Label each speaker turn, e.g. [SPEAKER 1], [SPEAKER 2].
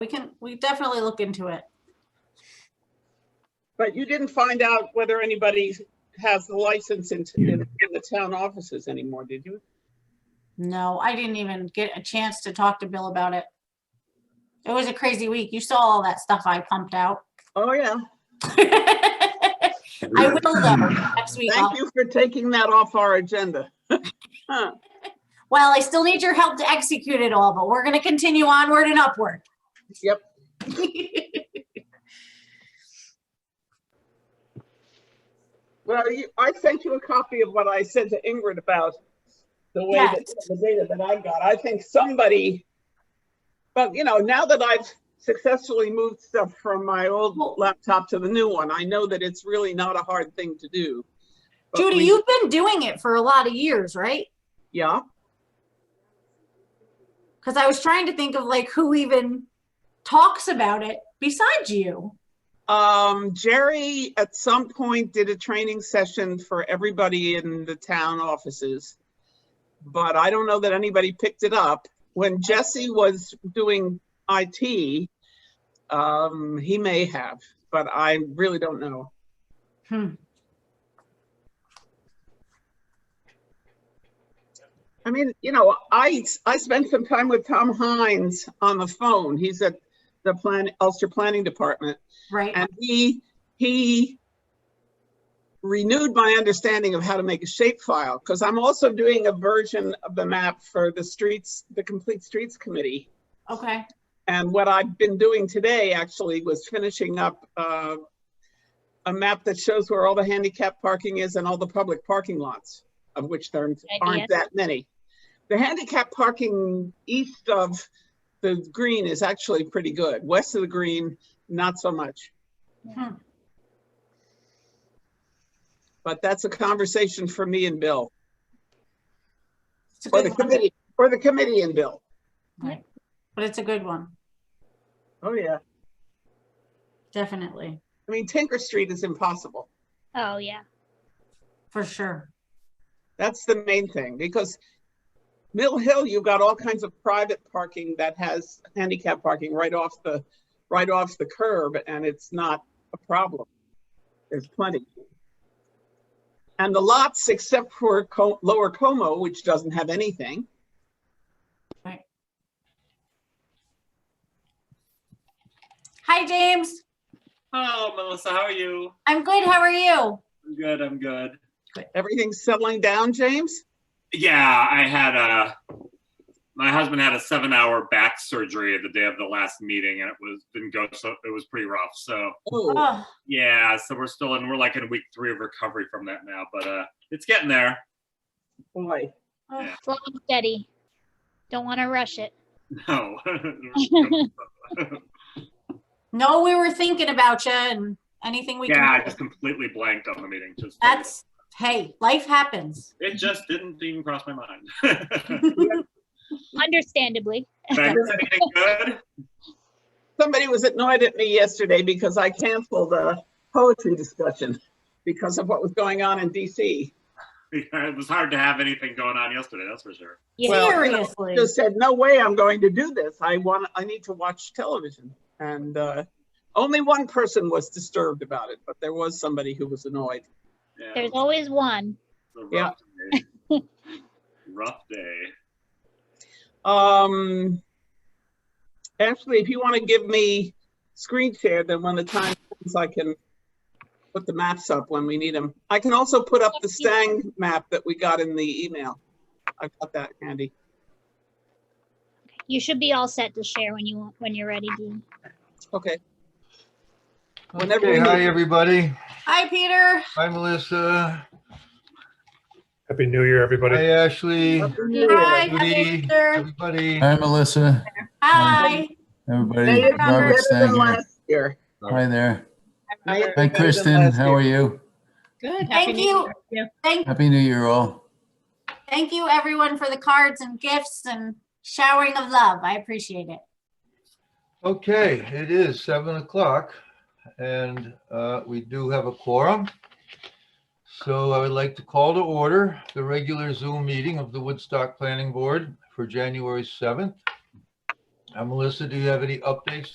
[SPEAKER 1] We can, we definitely look into it.
[SPEAKER 2] But you didn't find out whether anybody has the license in, in in the town offices anymore, did you?
[SPEAKER 1] No, I didn't even get a chance to talk to Bill about it. It was a crazy week. You saw all that stuff I pumped out.
[SPEAKER 2] Oh, yeah.
[SPEAKER 1] I will though, next week. I'll-
[SPEAKER 2] Thank you for taking that off our agenda.
[SPEAKER 1] Well, I still need your help to execute it all, but we're gonna continue onward and upward.
[SPEAKER 2] Yep. Well, you, I sent you a copy of what I said to Ingrid about the way that,
[SPEAKER 1] Yes.
[SPEAKER 2] the data that I got. I think somebody, but you know, now that I've successfully moved stuff from my old
[SPEAKER 1] Well-
[SPEAKER 2] laptop to the new one, I know that it's really not a hard thing to do. But
[SPEAKER 1] Judy,
[SPEAKER 2] we-
[SPEAKER 1] you've been doing it for a lot of years, right?
[SPEAKER 2] Yeah,
[SPEAKER 1] Because I was trying to think of like who even talks about it besides you.
[SPEAKER 2] um, Jerry at some point did a training session for everybody in the town offices. But I don't know that anybody picked it up. When Jesse was doing IT, um, he may have, but I really don't know.
[SPEAKER 1] Hmm.
[SPEAKER 2] I mean, you know, I, I spent some time with Tom Hines on the phone. He's at the plan, Ulster Planning Department.
[SPEAKER 1] Right,
[SPEAKER 2] And he, he renewed my understanding of how to make a shapefile, because I'm also doing a version of the map for the streets, the Complete Streets Committee.
[SPEAKER 1] okay.
[SPEAKER 2] And what I've been doing today actually was finishing up uh, a map that shows where all the handicap parking is and all the public parking lots, of which there
[SPEAKER 3] idea.
[SPEAKER 2] aren't that many. The handicap parking east of the green is actually pretty good. West of the green, not so much.
[SPEAKER 1] Hmm.
[SPEAKER 2] But that's a conversation for me and Bill,
[SPEAKER 1] It's a
[SPEAKER 2] or the
[SPEAKER 1] good one.
[SPEAKER 2] committee, or the committee and Bill.
[SPEAKER 1] Right. But it's a good one,
[SPEAKER 2] Oh, yeah.
[SPEAKER 1] definitely,
[SPEAKER 2] I mean, Tinker Street is impossible.
[SPEAKER 3] Oh, yeah.
[SPEAKER 1] for sure.
[SPEAKER 2] That's the main thing, because Mill Hill, you've got all kinds of private parking that has handicap parking right off the, right off the curb, and it's not a problem. There's plenty. And the lots, except for Co- Lower Como, which doesn't have anything.
[SPEAKER 1] Hi, James.
[SPEAKER 4] Hello, Melissa. How are you?
[SPEAKER 1] I'm good. How are you?
[SPEAKER 4] I'm good. I'm good.
[SPEAKER 2] Everything's settling down, James?
[SPEAKER 4] Yeah, I had a. My husband had a seven-hour back surgery the day of the last meeting, and it was didn't go so it was pretty rough. So
[SPEAKER 2] Oh,
[SPEAKER 1] Oh,
[SPEAKER 4] yeah, so we're still in we're like in week three of recovery from that now, but uh, it's getting there.
[SPEAKER 2] boy.
[SPEAKER 1] oh,
[SPEAKER 3] Slow and steady. Don't want to rush it.
[SPEAKER 4] No.
[SPEAKER 1] No, we were thinking about you and anything we
[SPEAKER 4] yeah,
[SPEAKER 1] can.
[SPEAKER 4] I
[SPEAKER 1] do.
[SPEAKER 4] just completely blanked on the meeting. Just
[SPEAKER 1] That's, hey, life happens.
[SPEAKER 4] it. Just didn't even cross my mind. Did
[SPEAKER 3] Understandably.
[SPEAKER 4] I miss anything good?
[SPEAKER 2] Somebody was annoyed at me yesterday because I canceled a poetry discussion because of what was going on in DC.
[SPEAKER 4] It was hard to have anything going on yesterday. That's for sure.
[SPEAKER 3] Yeah.
[SPEAKER 2] Well-
[SPEAKER 1] Seriously.
[SPEAKER 2] just said, no way I'm going to do this. I want, I need to watch television. And uh, only one person was disturbed about it, but there was somebody who was annoyed.
[SPEAKER 4] Yeah.
[SPEAKER 3] There's always one.
[SPEAKER 4] It's a
[SPEAKER 2] Yeah.
[SPEAKER 4] rough day. rough day.
[SPEAKER 2] Um, Ashley, if you want to give me screen share, then when the time comes, I can put the maps up when we need them. I can also put up the Stang map that we got in the email. I've got that handy.
[SPEAKER 3] You should be all set to share when you want, when you're ready, Dean.
[SPEAKER 2] Okay. Whenever we
[SPEAKER 5] Okay, hi,
[SPEAKER 2] need-
[SPEAKER 5] everybody.
[SPEAKER 1] Hi, Peter.
[SPEAKER 5] Hi, Melissa.
[SPEAKER 6] Happy New Year, everybody.
[SPEAKER 5] Hi, Ashley.
[SPEAKER 1] Hi, hi,
[SPEAKER 5] Judy.
[SPEAKER 1] Peter.
[SPEAKER 5] Everybody.
[SPEAKER 7] Hi, Melissa,
[SPEAKER 1] Hi.
[SPEAKER 7] everybody.
[SPEAKER 2] Made it
[SPEAKER 7] Robert
[SPEAKER 2] better than
[SPEAKER 7] Stang here.
[SPEAKER 2] last year.
[SPEAKER 7] Hi there.
[SPEAKER 2] Made it
[SPEAKER 7] Hi,
[SPEAKER 2] better than
[SPEAKER 7] Kristen.
[SPEAKER 2] last year.
[SPEAKER 7] How are you?
[SPEAKER 8] Good. Happy
[SPEAKER 1] Thank
[SPEAKER 8] New
[SPEAKER 1] you.
[SPEAKER 8] Year.
[SPEAKER 1] Thank,
[SPEAKER 7] Happy New Year, all.
[SPEAKER 1] thank you everyone for the cards and gifts and showering of love. I appreciate it.
[SPEAKER 5] Okay, it is seven o'clock and uh, we do have a quorum. So I would like to call to order the regular Zoom meeting of the Woodstock Planning Board for January 7th. Uh, Melissa, do you have any updates